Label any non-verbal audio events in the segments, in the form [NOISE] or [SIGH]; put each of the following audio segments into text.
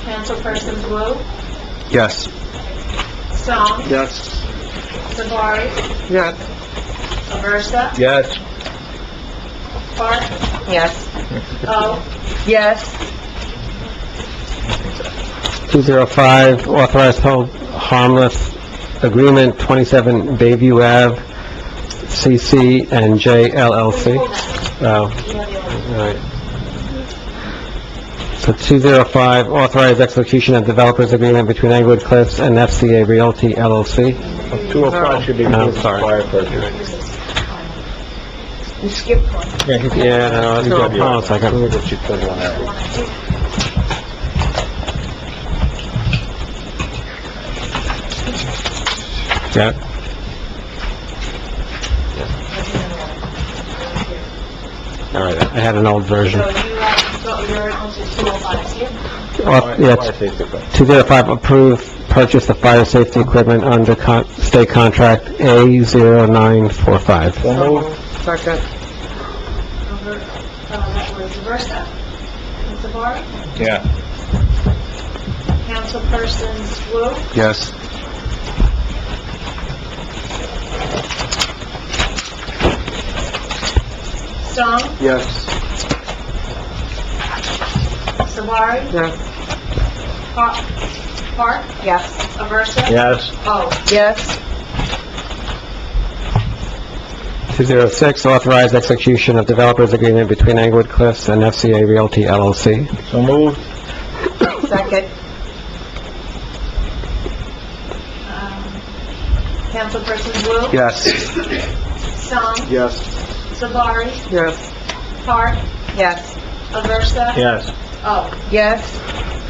Councilpersons Wu, Yes. Song, Yes. Savari, Yes. Aversa, Yes. Park, Oh. Yes. O, Yes. 205, authorized hold harmless agreement, 27 Bayview Ave, CC and J LLC. Oh, all right. So 205, authorized execution of developers agreement between Englewood Cliffs and FCA Realty LLC. 205 should No, be Oh, I'm moved to sorry. fire first. You skipped one. Yeah, no, I Hold on a second. oh Yeah. All right, I had an old version. so you have, so you're on to 205 here? Uh, Auth- Yeah, Fire safety first. 205, approve purchase of fire safety equipment under con- state contract A0945. So moved. Second. Over, uh, that was Aversa, Savari, Yeah. Councilpersons Wu, Yes. Song, Yes. Savari, Yes. Pa- Park, Yes. Aversa, Oh. Yes. O, Yes. 206, authorize execution of developers agreement between Englewood Cliffs and FCA Realty LLC. So moved. Second. um, Councilpersons Wu, Yes. Song, Yes. Savari, Yes. Park, Yes. Aversa, Oh. Yes. O, Yes.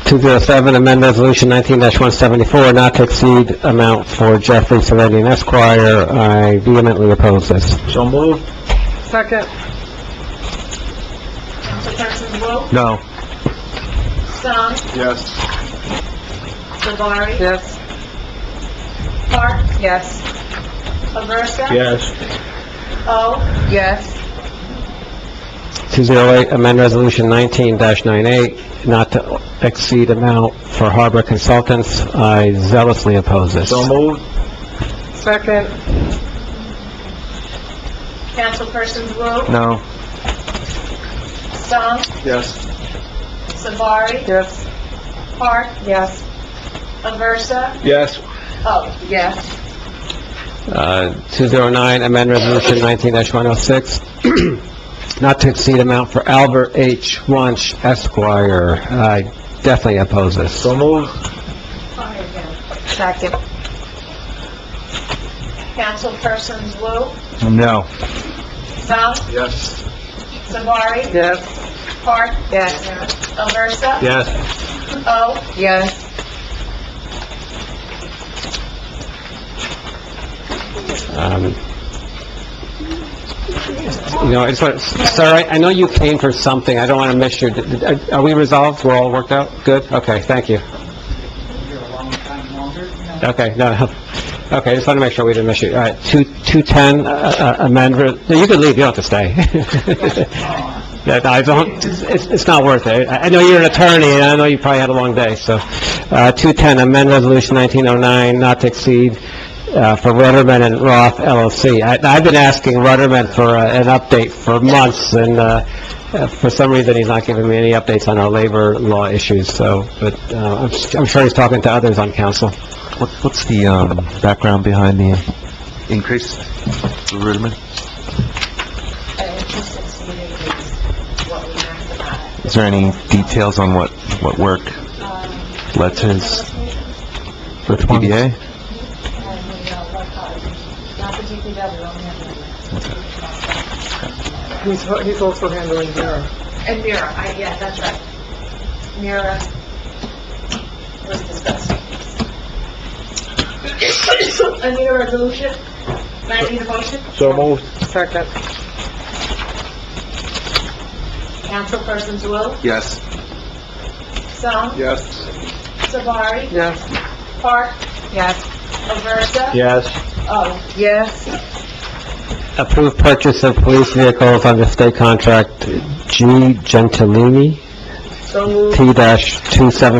207, amend resolution 19-174, not to exceed amount for Jeffrey Serenian Esquire. I vehemently oppose this. So moved. Second. Councilpersons Wu, No. Song, Yes. Savari, Yes. Park, Yes. Aversa, Oh. Yes. O, Yes. 208, amend Resolution 19-98, not to exceed amount for Harbor Consultants. I zealously oppose this. So moved. Second. Councilpersons Wu, No. Song, Yes. Savari, Yes. Park, Yes. Aversa, Yes. Oh, O, Yes. Uh, 209, amend Resolution 19-106, [CLEARS THROAT] not to exceed amount for Albert H. Wunsch Esquire. I definitely oppose this. So moved. Second. Councilpersons Wu, No. Song, Yes. Savari, Yes. Park, Yes. Aversa, Yes. O, Yes. Um, You know, I just want, sir, I- I know you came for something, I don't want to miss your, are we resolved? We're all worked out? Good? Okay, thank you. Okay, no, no. okay, I just want to make sure we didn't miss you. All right, two- 210, uh, uh, amend, re- no, you can leave, you don't have to stay. [LAUGHS] Yeah, no, I don't, it's- it's it's not worth it. I I know you're an attorney, and I know you probably had a long day, so. Uh, 210, amend Resolution 1909, not to exceed uh, for Rutterman and Roth LLC. I- I've been asking Rutterman for uh, an update for months, and uh, uh, for some reason, he's not giving me any updates on our labor law issues, so, but uh, I'm s- I'm sure he's talking to others on council. What's the um, background behind the increase, Ruderman? Is there any details on what, what work Um, led to his PBA? He's, he's also handling Vera. and Mira, I, yeah, that's right. Mira was discussed. I need a resolution, I need a motion. So moved. Second. Councilpersons Wu, Yes. Song, Yes. Savari, Yes. Park, Yes. Aversa, Oh, Yes. O, Yes. Approved purchase of police vehicles under state contract G. Gentilini, So moved. T-270.